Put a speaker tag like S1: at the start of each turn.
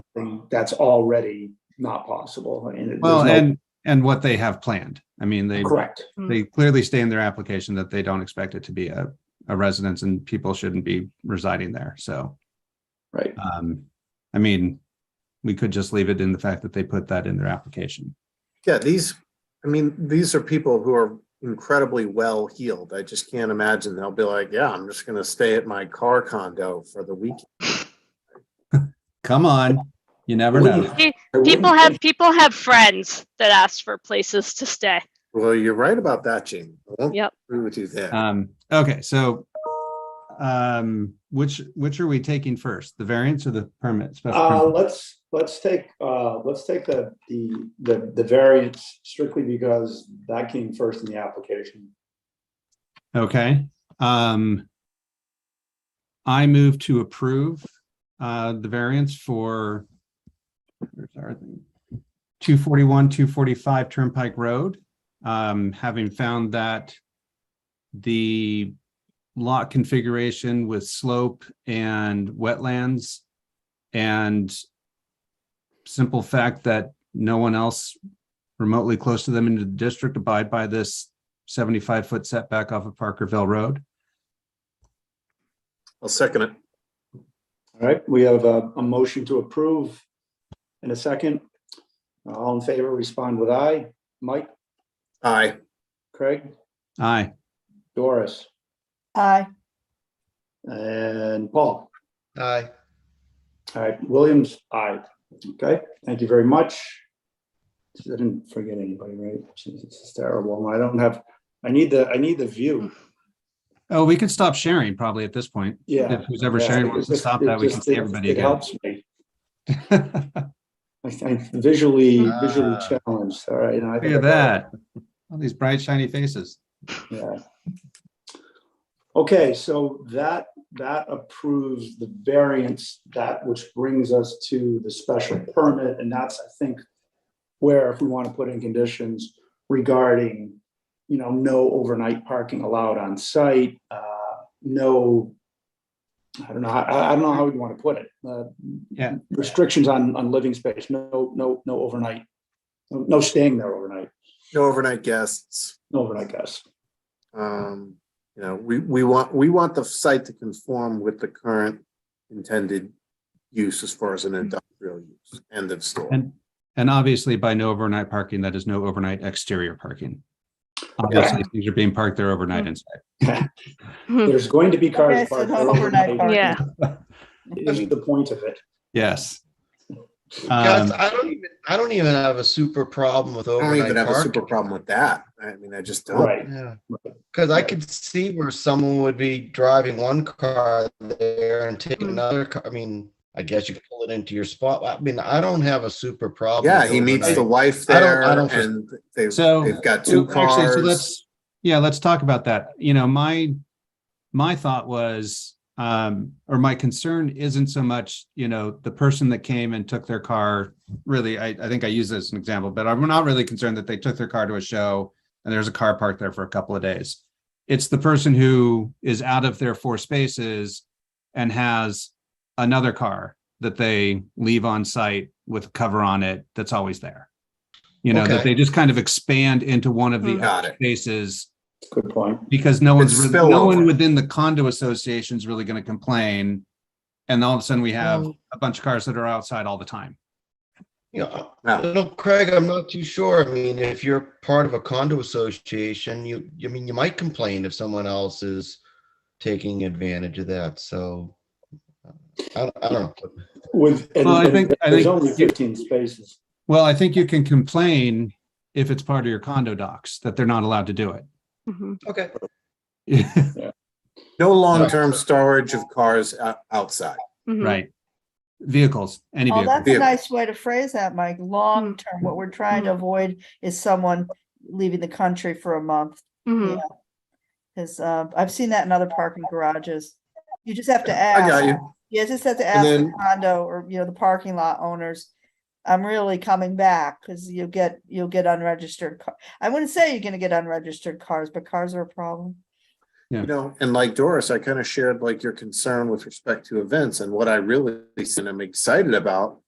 S1: something that's already not possible. And there's
S2: Well,
S1: no-
S2: and, and what they have planned. I mean, they,
S1: Correct.
S2: they clearly state in their application that they don't expect it to be a, a residence and people shouldn't be residing there. So,
S1: Right.
S2: um, I mean, we could just leave it in the fact that they put that in their application.
S3: Yeah, these, I mean, these are people who are incredibly well heeled. I just can't imagine they'll be like, yeah, I'm just gonna stay at my car condo for the weekend.
S2: Come on, you never know.
S1: Wouldn't- I wouldn't
S4: People have
S1: think-
S4: people have friends that ask for places to stay.
S3: Well, you're right about that, Jane. I won't
S4: Yep.
S3: agree with you there.
S2: Um, okay, so um, which, which are we taking first? The variance or the permit? Special
S1: Uh,
S2: permit?
S1: let's, let's take, uh, let's take the, the, the, the variance strictly because that came first in the application.
S2: Okay, um. I move to approve, uh, the variance for. Where's our thing? Two forty-one, two forty-five Turnpike Road, um, having found that. The lot configuration with slope and wetlands. And. Simple fact that no one else remotely close to them in the district abide by this 75-foot setback off of Parkerville Road.
S3: I'll second it.
S1: All right, we have a, a motion to approve in a second. All in favor, respond with aye. Mike,
S3: Aye.
S1: Craig,
S2: Aye.
S1: Doris,
S5: Aye.
S1: and Paul.
S6: Aye.
S1: All right, Williams, aye. Okay, thank you very much. I didn't forget anybody, right? Jeez, This is terrible. I don't have, I need the, I need the view.
S2: Oh, we could stop sharing probably at this point.
S1: Yeah.
S2: If who's ever
S1: Yeah,
S2: sharing
S1: it
S2: wants to
S1: just-
S2: stop
S1: it
S2: that, we can
S1: just-
S2: see
S1: it-
S2: everybody
S1: It
S2: again.
S1: helps me. I I visually, visually
S6: Ah.
S1: challenged, all right. and I
S2: Look
S1: think
S2: at
S1: I got
S2: that. All these bright shiny faces.
S1: it, yeah. Okay, so that, that approves the variance, that which brings us to the special permit, and that's, I think, where if we want to put in conditions regarding, you know, no overnight parking allowed on site, uh, no, I don't know, how- I, I don't know how we want to put it. uh,
S2: Yeah.
S1: Restrictions on, on living space, no, no, no overnight, no no staying there overnight,
S3: No overnight guests.
S1: no overnight guests.
S3: Um, you know, we, we want, we want the site to conform with the current intended use as far as an industrial use. End of story.
S2: And, and obviously by no overnight parking, that is no overnight exterior parking. Obviously, things are being parked there
S1: Mm.
S2: overnight inside.
S1: There's going to be cars
S5: Okay, so
S1: parked
S5: no
S1: there
S5: overnight
S1: overnight.
S5: parking.
S4: Yeah.
S1: Is the point of it.
S2: Yes.
S6: Guys,
S2: Um,
S6: I don't even, I don't even have a super problem with
S3: I don't
S6: overnight
S3: even have a super
S6: parking.
S3: problem with that. I mean, I just don't.
S1: Right.
S6: Yeah, because I could see where someone would be driving one car there and taking
S4: Mm.
S6: another car. I mean, I guess you could pull it into your spot. I mean, I don't have a super problem.
S3: Yeah,
S6: with
S3: he meets the
S6: overnight.
S3: wife
S6: I don't-
S3: there
S6: I don't feel-
S3: and they've,
S2: So-
S3: they've got two
S2: Well, actually, so
S3: cars.
S2: let's- Yeah, let's talk about that. You know, my, my thought was, um, or my concern isn't so much, you know, the person that came and took their car. Really, I, I think I use this as an example, but I'm not really concerned that they took their car to a show and there's a car parked there for a couple of days. It's the person who is out of their four spaces and has another car that they leave on site with a cover on it that's always there. You know, that
S6: Okay.
S2: they just kind of expand into one of the
S4: Mm.
S3: Got it.
S2: spaces
S1: Good point.
S2: because no one's,
S3: It's
S2: really- no one
S3: spillover.
S2: within the condo association is really going to complain. And all of a sudden we
S6: Hmm.
S2: have a bunch of cars that are outside all the time.
S6: You know, I
S3: Now,
S6: don't know, Craig, I'm not too sure. I mean, if you're part of a condo association, you, I mean, you might complain if someone else is taking advantage of that. So I, I don't know.
S1: With, and
S2: Well, I
S1: and
S2: think- I
S1: there's
S2: think
S1: only
S2: you-
S1: fifteen spaces.
S2: Well, I think you can complain if it's part of your condo docs that they're not allowed to do it.
S4: Mhm.
S6: Okay.
S3: no long-term storage of cars o- outside.
S4: Mhm.
S2: Right. Vehicles, any
S5: Oh,
S2: vehicle.
S5: that's a
S3: Vehicle.
S5: nice way to phrase that, Mike. Long term, what we're trying to avoid is someone leaving the country for a month.
S4: Mhm.
S5: Cause uh, I've seen that in other parking garages. You just have to
S3: I got
S5: ask.
S3: you.
S5: You just have to
S3: And
S5: ask the
S3: then-
S5: condo or, you know, the parking lot owners. I'm really coming back because you'll get, you'll get unregistered. car- I wouldn't say you're gonna get unregistered cars, but cars are a problem.
S3: You know, and like Doris, I kind of shared like your concern with respect to events and what I really and I'm excited about